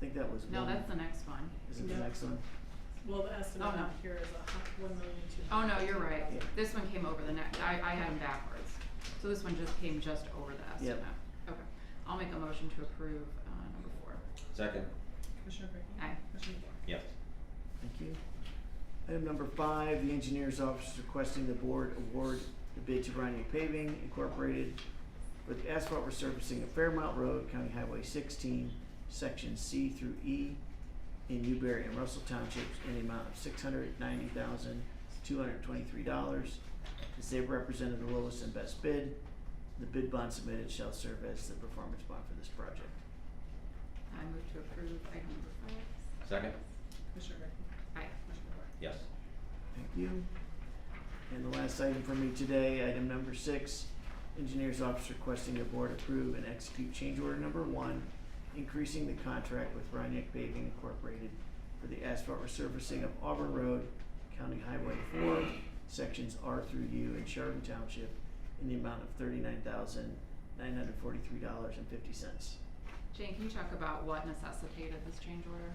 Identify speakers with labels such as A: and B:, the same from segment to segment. A: think that was
B: No,
A: one.
B: that's the next one.
A: Is it the
C: Yeah.
A: next one?
C: Well, the estimate
B: Oh, no.
C: out here is a hu- one million two
B: Oh,
C: hundred
B: no, you're
C: fifteen
B: right.
C: thousand.
B: This one came over the next, I, I had them backwards. So this one just came just over the estimate. Okay. I'll make a motion to approve, uh, number four.
D: Second,
C: Commissioner Brinkley?
B: Aye.
C: Commissioner DeBoer?
D: yes.
A: Thank you. Item number five, the engineer's office is requesting the board award the bid to Bryony Paving Incorporated with asphalt resurfacing of Fairmount Road, County Highway sixteen, section C through E in Newberry and Russell Townships in the amount of six hundred ninety thousand, two hundred twenty-three dollars. As they have represented the lowest and best bid, the bid bond submitted shall serve as the performance bond for this project.
B: I move to approve item number five.
D: Second,
C: Commissioner Brinkley?
B: Aye.
C: Commissioner DeBoer?
D: yes.
A: Thank you. And the last item for me today, item number six, engineer's office requesting the board approve and execute change order number one, increasing the contract with Rhinebeck Paving Incorporated for the asphalt resurfacing of Auburn Road, County Highway four, sections R through U in Sheridan Township in the amount of thirty-nine thousand, nine hundred forty-three dollars and fifty cents.
B: Jane, can you talk about what necessitated this change order?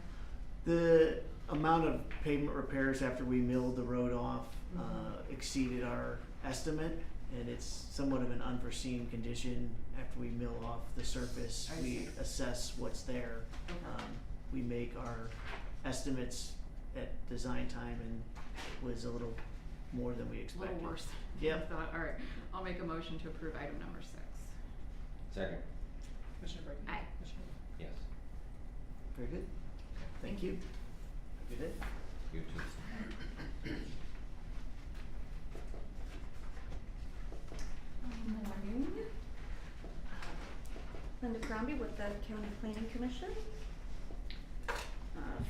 A: The amount of pavement repairs after we milled the road off uh,
B: Mhm.
A: exceeded our estimate, and it's somewhat of an unforeseen condition. After we mill off the surface,
B: I
A: we
B: see.
A: assess what's there.
B: Okay.
A: Um, we make our estimates at design time, and it was a little more than we
B: A
A: expected.
B: little worse. than I
A: Yep.
B: thought. All right. I'll make a motion to approve item number six.
D: Second,
C: Commissioner Brinkley?
B: Aye.
C: Commissioner DeBoer?
D: yes.
A: Very good. Thank you. Have a Good day.
D: You too.
E: Morning. Linda Crombie with the County Planning Commission. Uh,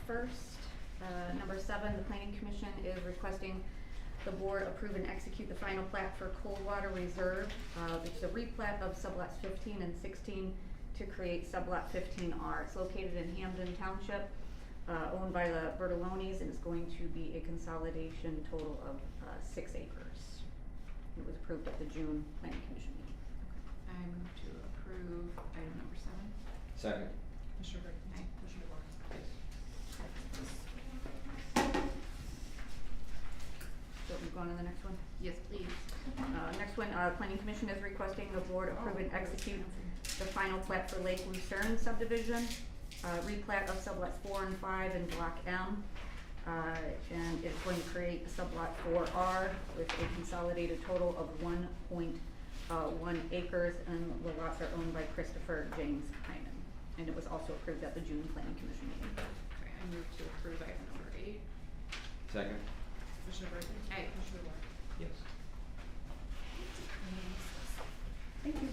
E: First, uh, number seven, the Planning Commission is requesting the board approve and execute the final plat for Coldwater Reserve, uh, which is a replat of sublots fifteen and sixteen to create sublot fifteen R. It's located in Hamden Township, uh, owned by the Bertolonis, and it's going to be a consolidation total of uh, six acres. It was approved at the June planning commission meeting.
B: I move to approve item number seven.
D: Second,
C: Commissioner Brinkley?
B: Aye.
C: Commissioner DeBoer?
D: yes.
E: So we go on to the next one.
B: Yes, please.
E: Uh, next one, uh, planning commission is requesting the board approve and execute the final plat for Lake Lucerne subdivision, uh, replat of sublot four and five in block M. Uh, and it's going to create sublot four R with a consolidated total of one point, uh, one acres, and the lots are owned by Christopher James Hyman. And it was also approved at the June planning commission meeting.
B: Okay, I move to approve item number eight.
D: Second,
C: Commissioner Brinkley?
B: Aye.
C: Commissioner DeBoer?
D: yes.
E: Thank you.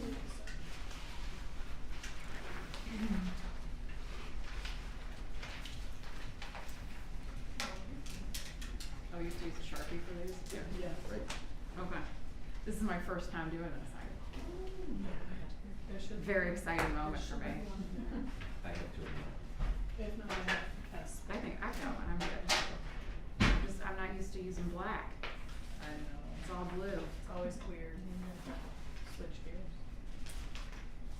B: Oh, you have to use a Sharpie for these?
C: Yeah.
B: Okay. This is my first time doing this.
C: There should be-
B: Very exciting moment for
C: there should be
B: me.
C: one in
D: I have two of
C: there. If not, I have to pass.
B: I think I got one. I'm good. I'm Just, I'm not used to using black.
C: I know.
B: It's all blue.
C: It's always weird.
B: Mm-hmm.
C: Switch gears.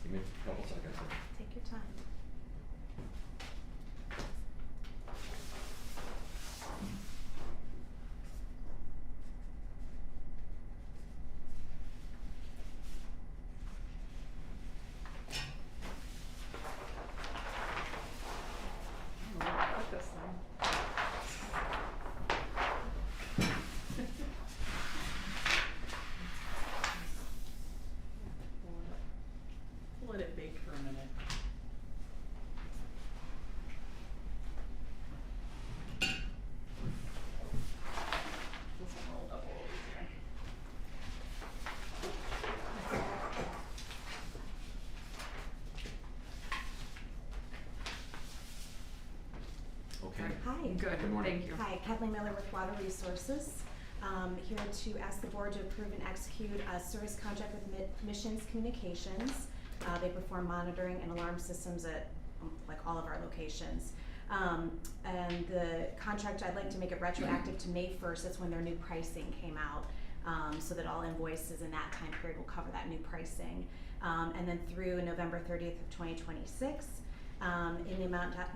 D: Give me a couple seconds. here.
E: Take your time.
B: I'm gonna cut this thing.
C: Let it bake for a minute.
B: This will roll up a little easier.
D: Okay.
F: Hi.
B: Good,
D: Good morning.
B: thank you.
F: Hi, Kathleen Miller with Water Resources. Um, here to ask the board to approve and execute a service contract with Mi- Missions Communications. Uh, they perform monitoring and alarm systems at um, like all of our locations. Um, and the contract, I'd like to make it retroactive to May first, that's when their new pricing came out. Um, so that all invoices in that time period will cover that new pricing. Um, and then through November thirtieth of twenty twenty-six, um, in the amount